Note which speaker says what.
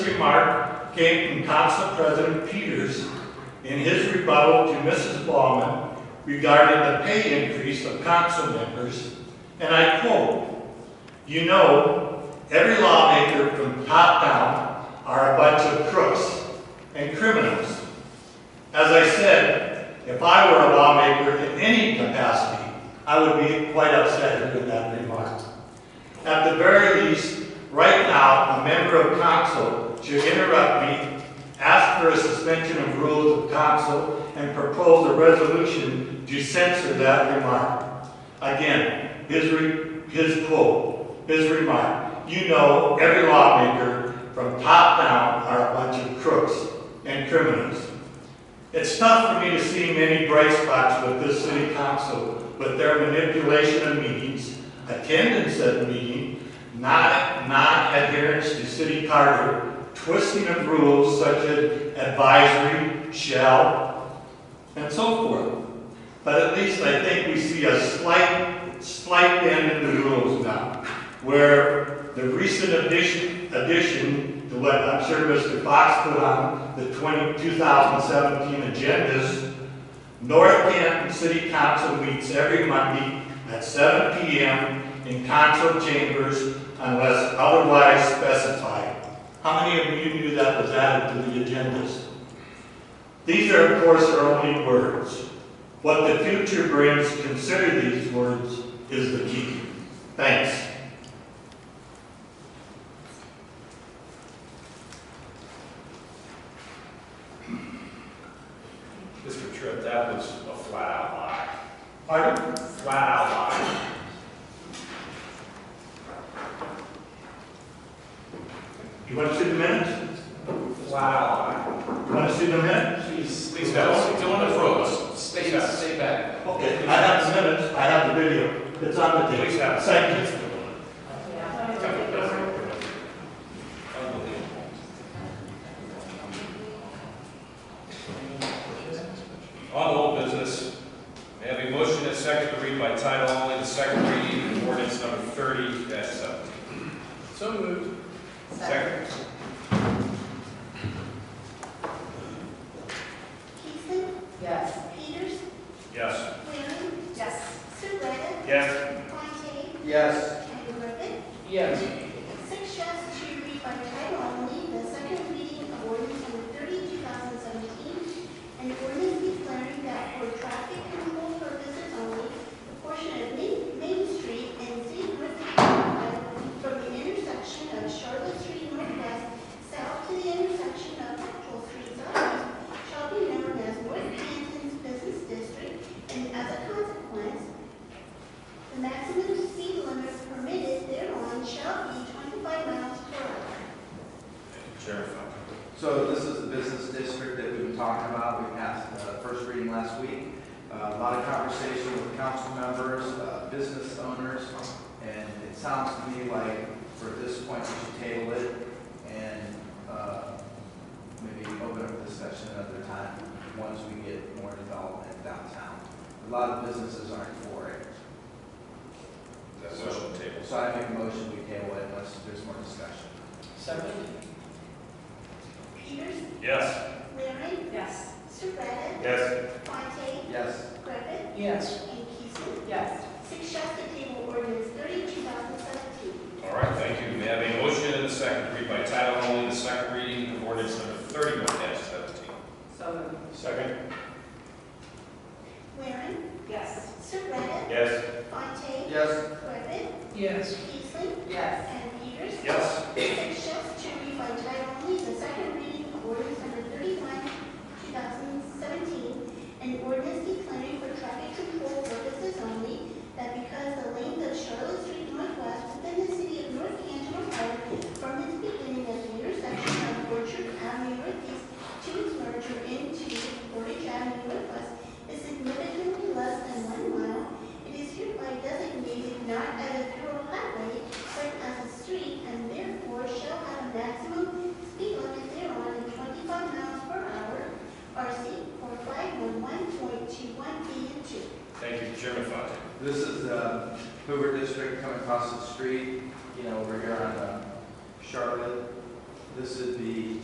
Speaker 1: remark came from Council President Peters in his rebuttal to Mrs. Baumann regarding the pay increase of council members, and I quote, "You know, every lawmaker from top down are a bunch of crooks and criminals. As I said, if I were a lawmaker in any capacity, I would be quite upset with that remark. At the very least, right now, a member of council should interrupt me, ask for a suspension of rules of council, and propose a resolution to censor that remark. Again, his, re- his quote, his remark, "You know, every lawmaker from top down are a bunch of crooks and criminals." It's tough for me to see many bright spots with this city council, with their manipulation of meetings, attendance at meeting, not, not adherence to city charter, twisting of rules such as advisory, shall, and so forth. But at least I think we see a slight, slight bend in the rules now, where the recent addition, addition to what I'm sure Mr. Fox put on the 20 2017 agendas, North Canton City Council meets every Monday at seven PM in council chambers unless otherwise specified. How many of you knew that was added to the agendas? These are, of course, are only words. What the future brings, consider these words, is the key. Thanks.
Speaker 2: Mr. Tripp, that was a flat-out lie.
Speaker 1: Pardon?
Speaker 2: Flat-out lie.
Speaker 1: You want to see the minutes?
Speaker 2: Flat-out
Speaker 1: You want to see the minutes?
Speaker 2: lie. Please don't, don't approach.
Speaker 3: Stay, stay back.
Speaker 1: Okay, I have the minutes, I have the video. It's on the
Speaker 2: Please
Speaker 1: tape.
Speaker 2: have.
Speaker 1: Thank you.
Speaker 2: On old business, may I have a motion and second to read by title only the second reading of ordinance number thirty seventeen? So moved. Second.
Speaker 4: Keeson,
Speaker 5: Yes.
Speaker 4: Peters,
Speaker 2: Yes.
Speaker 4: Waring,
Speaker 5: Yes.
Speaker 4: Surratt,
Speaker 2: Yes.
Speaker 4: Fontaine,
Speaker 3: Yes.
Speaker 4: and Griffin.
Speaker 5: Yes.
Speaker 4: Six shifts to read by title only the second reading of ordinance number thirty, two thousand seventeen, and ordinance declaring that for traffic control purposes only, the portion of Main, Main Street and City Griffin Boulevard from the intersection of Charlotte Street Northwest south to the intersection of Central Street Southwest shall be known as North Canton's Business District, and as a consequence, the maximum speed limit permitted thereon shall be 25 miles per hour.
Speaker 2: Sheriff.
Speaker 3: So this is the business district that we've been talking about. We passed the first reading last week. Uh, A lot of conversation with council members, uh, business owners, and it sounds to me like for this point, we should table it and uh, maybe open up discussion another time, once we get more development downtown. A lot of businesses aren't for it.
Speaker 2: That motion tables.
Speaker 3: So I make a motion we table it unless there's more discussion.
Speaker 5: Second?
Speaker 4: Peters,
Speaker 2: Yes.
Speaker 4: Waring,
Speaker 5: Yes.
Speaker 4: Surratt,
Speaker 2: Yes.
Speaker 4: Fontaine,
Speaker 3: Yes.
Speaker 4: Griffith,
Speaker 5: Yes.
Speaker 4: and Keeson.
Speaker 5: Yes.
Speaker 4: Six shall to table ordinance 30, 2017.
Speaker 2: All right, thank you. May I have a motion and a second to read by title only the second reading of ordinance number thirty-one seventeen?
Speaker 5: So moved.
Speaker 2: Second.
Speaker 4: Waring,
Speaker 5: Yes.
Speaker 4: Surratt,
Speaker 2: Yes.
Speaker 4: Fontaine,
Speaker 3: Yes.
Speaker 4: Griffith,
Speaker 5: Yes.
Speaker 4: Keeson,
Speaker 5: Yes.
Speaker 4: and Peters.
Speaker 2: Yes.
Speaker 4: Six shifts to read by title only the second reading of ordinance number thirty-one, two thousand seventeen, an ordinance declaring for traffic control purposes only that because the length of Charlotte Street Northwest within the city of North Canton, Ohio, from its beginning as the intersection of Orchard Avenue Northeast to its merger into Portage Avenue Northwest is significantly less than one mile, it is hereby designated not as a federal highway but as a street and therefore shall have a maximum speed limit thereon of twenty-five miles per hour, RC four five one one point two one B and two.
Speaker 2: Thank you, Chairman Fontaine.
Speaker 3: This is um, the Hoover District coming across the street, you know, over here on uh, um, Charlotte. This is the